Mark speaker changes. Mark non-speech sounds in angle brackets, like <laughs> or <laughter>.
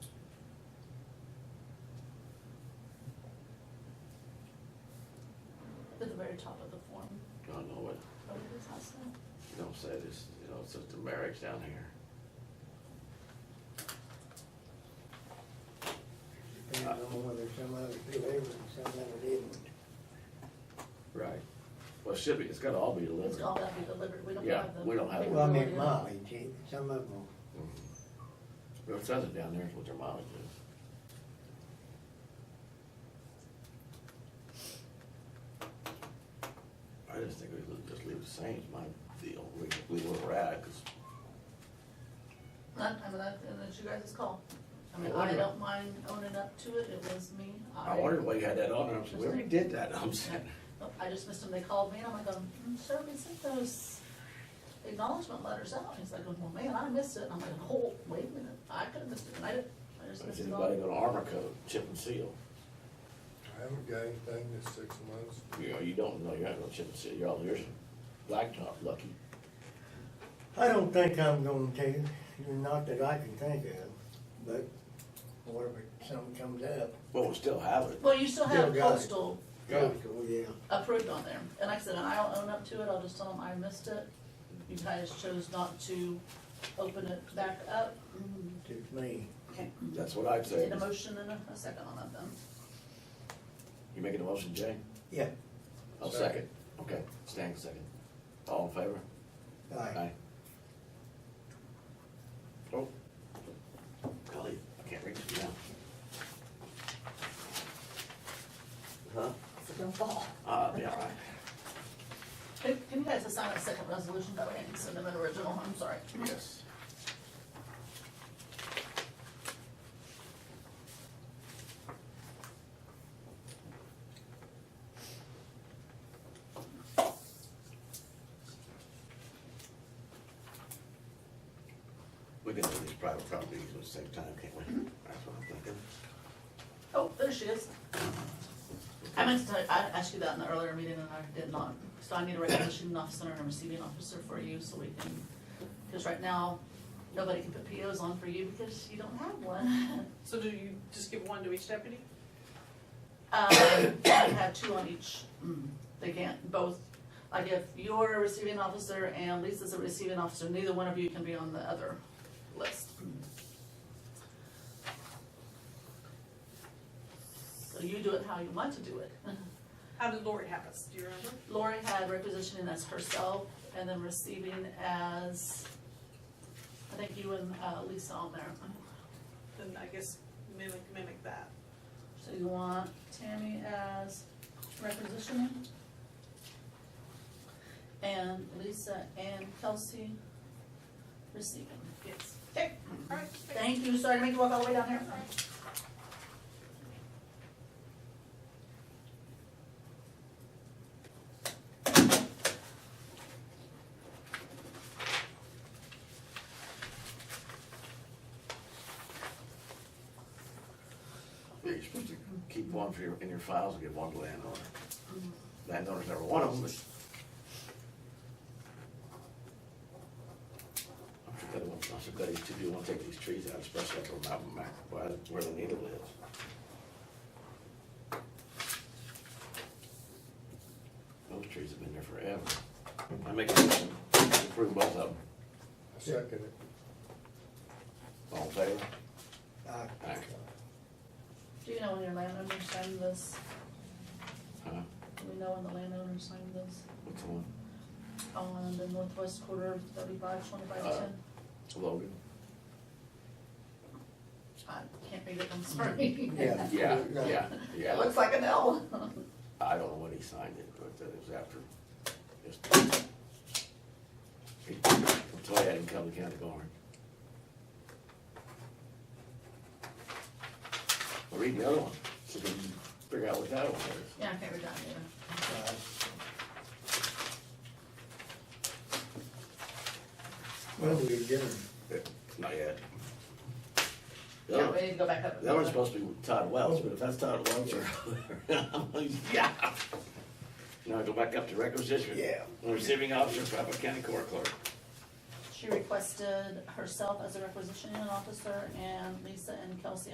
Speaker 1: very top of the form.
Speaker 2: I don't know what,
Speaker 1: What is his house now?
Speaker 2: you know, said it's, you know, it's just a barracks down here.
Speaker 3: Depending on whether some of it delivered and some of it didn't.
Speaker 2: Right. Well, it should be, it's gotta all be delivered.
Speaker 1: It's all gotta be delivered, we don't
Speaker 2: Yeah,
Speaker 1: have the.
Speaker 2: we don't have it.
Speaker 3: Well, I
Speaker 1: capability.
Speaker 3: mean mileage, eh, some of them,
Speaker 2: Mhm. Well, It says it Mm-hmm. down there, it's what their mileage is. I just think we should just leave it the same, it's my deal, we, we were at, cause
Speaker 1: That, I mean, that, and it's you guys' call. I mean,
Speaker 2: I
Speaker 1: I
Speaker 2: wonder-
Speaker 1: don't mind owning up to it, it was me, I. Oh,
Speaker 2: I wondered why you had that on, and I'm saying, we already did that, I'm saying.
Speaker 1: I just missed them, they called me, and I'm like, um, mm, sir, we sent those acknowledgement letters out, he's like, well, man, I missed it, and I'm like, oh, wait a minute, I could've missed it, and I didn't, I just missed
Speaker 2: Is
Speaker 1: it
Speaker 2: anybody
Speaker 1: all.
Speaker 2: gonna armor coat, chip and seal?
Speaker 4: I haven't got anything in six months.
Speaker 2: You know, you don't know, you're not gonna chip and seal, you're all, yours blacktop lucky.
Speaker 3: I don't think I'm going to, not that I can think of, but whatever, something comes up.
Speaker 2: Well, we still have it.
Speaker 1: Well, you still have
Speaker 3: Still got it.
Speaker 1: postal
Speaker 2: Yeah.
Speaker 3: Cool, yeah.
Speaker 1: approved on there, and like I said, and I'll own up to it, I'll just tell them I missed it, you guys chose not to open it back up.
Speaker 3: To me,
Speaker 1: Okay,
Speaker 2: That's what I'd say.
Speaker 1: Need a motion and a, a second on that then.
Speaker 2: You making a motion, Jay?
Speaker 3: yeah,
Speaker 2: I'll second.
Speaker 4: Second.
Speaker 2: Okay, Stan, second. All in favor?
Speaker 3: aye.
Speaker 2: Oh. Golly, I can't reach it now. Huh?
Speaker 1: It's gonna fall.
Speaker 2: Uh, be all right.
Speaker 1: Can can you guys assign a second resolution, that way I can send them an original, I'm sorry.
Speaker 2: Yes. We can do these private properties at the same time, can't we? That's what I'm thinking.
Speaker 1: Oh, there she is. I meant to tell you, I asked you that in the earlier meeting and I did not, so I need a resolution officer and a receiving officer for you, so we can, because right now, nobody can put POs on for you because you don't have one. <laughs>
Speaker 5: So do you just give one to each deputy?
Speaker 1: Um, I have two on each, Mm, they can't both, like if you're a receiving officer and Lisa's a receiving officer, neither one of you can be on the other list. So you do it how you want to do it. <laughs>
Speaker 5: How did Lori have us? Do you remember?
Speaker 1: Lori had requisitioning as herself and then receiving as, I think you and uh, Lisa on there.
Speaker 5: Then I guess mimic, mimic that.
Speaker 1: So you want Tammy as requisitioning? And Lisa and Kelsey receiving.
Speaker 5: Yes.
Speaker 1: Okay,
Speaker 5: All right.
Speaker 1: thank you, sorry to make you walk all the way down here.
Speaker 2: Yeah, You're supposed to keep one for your, in your files and give one to landowner. Landowner's never one of them, but. I'm sure they want, I'm sure they too do want to take these trees out, especially up on Mountain Mac, where, where the needle is. Those trees have been there forever. I make a motion, to approve both of them.
Speaker 4: I second it.
Speaker 2: All in favor?
Speaker 3: Aye.
Speaker 2: Aye.
Speaker 1: Do you know when your landowner signed this?
Speaker 2: Huh?
Speaker 1: Do we know when the landowner signed this?
Speaker 2: Which one?
Speaker 1: On the northwest quarter of thirty-five, twenty-five, ten?
Speaker 2: Logan?
Speaker 1: I can't read it, I'm sorry. <laughs>
Speaker 3: Yeah.
Speaker 2: Yeah, yeah, yeah.
Speaker 1: It looks like an L.
Speaker 2: I don't know when he signed it, but uh, it was after. his- Until I had him come to county barn. Well, Read the other one, so we can figure out what that one is.
Speaker 1: Yeah, I can't read that either.
Speaker 3: Aye. Well, we adjourned.
Speaker 2: Not yet. The
Speaker 1: Yeah,
Speaker 2: other-
Speaker 1: we need to go back up.
Speaker 2: That one's supposed to be Todd Wells, but if that's Todd Wells or, I'm like, <laughs> yeah. Now go back up to requisition.
Speaker 3: Yeah.
Speaker 2: Receiving officer, Trappa County Court Clerk.
Speaker 1: She requested herself as a requisitioning officer and Lisa and Kelsey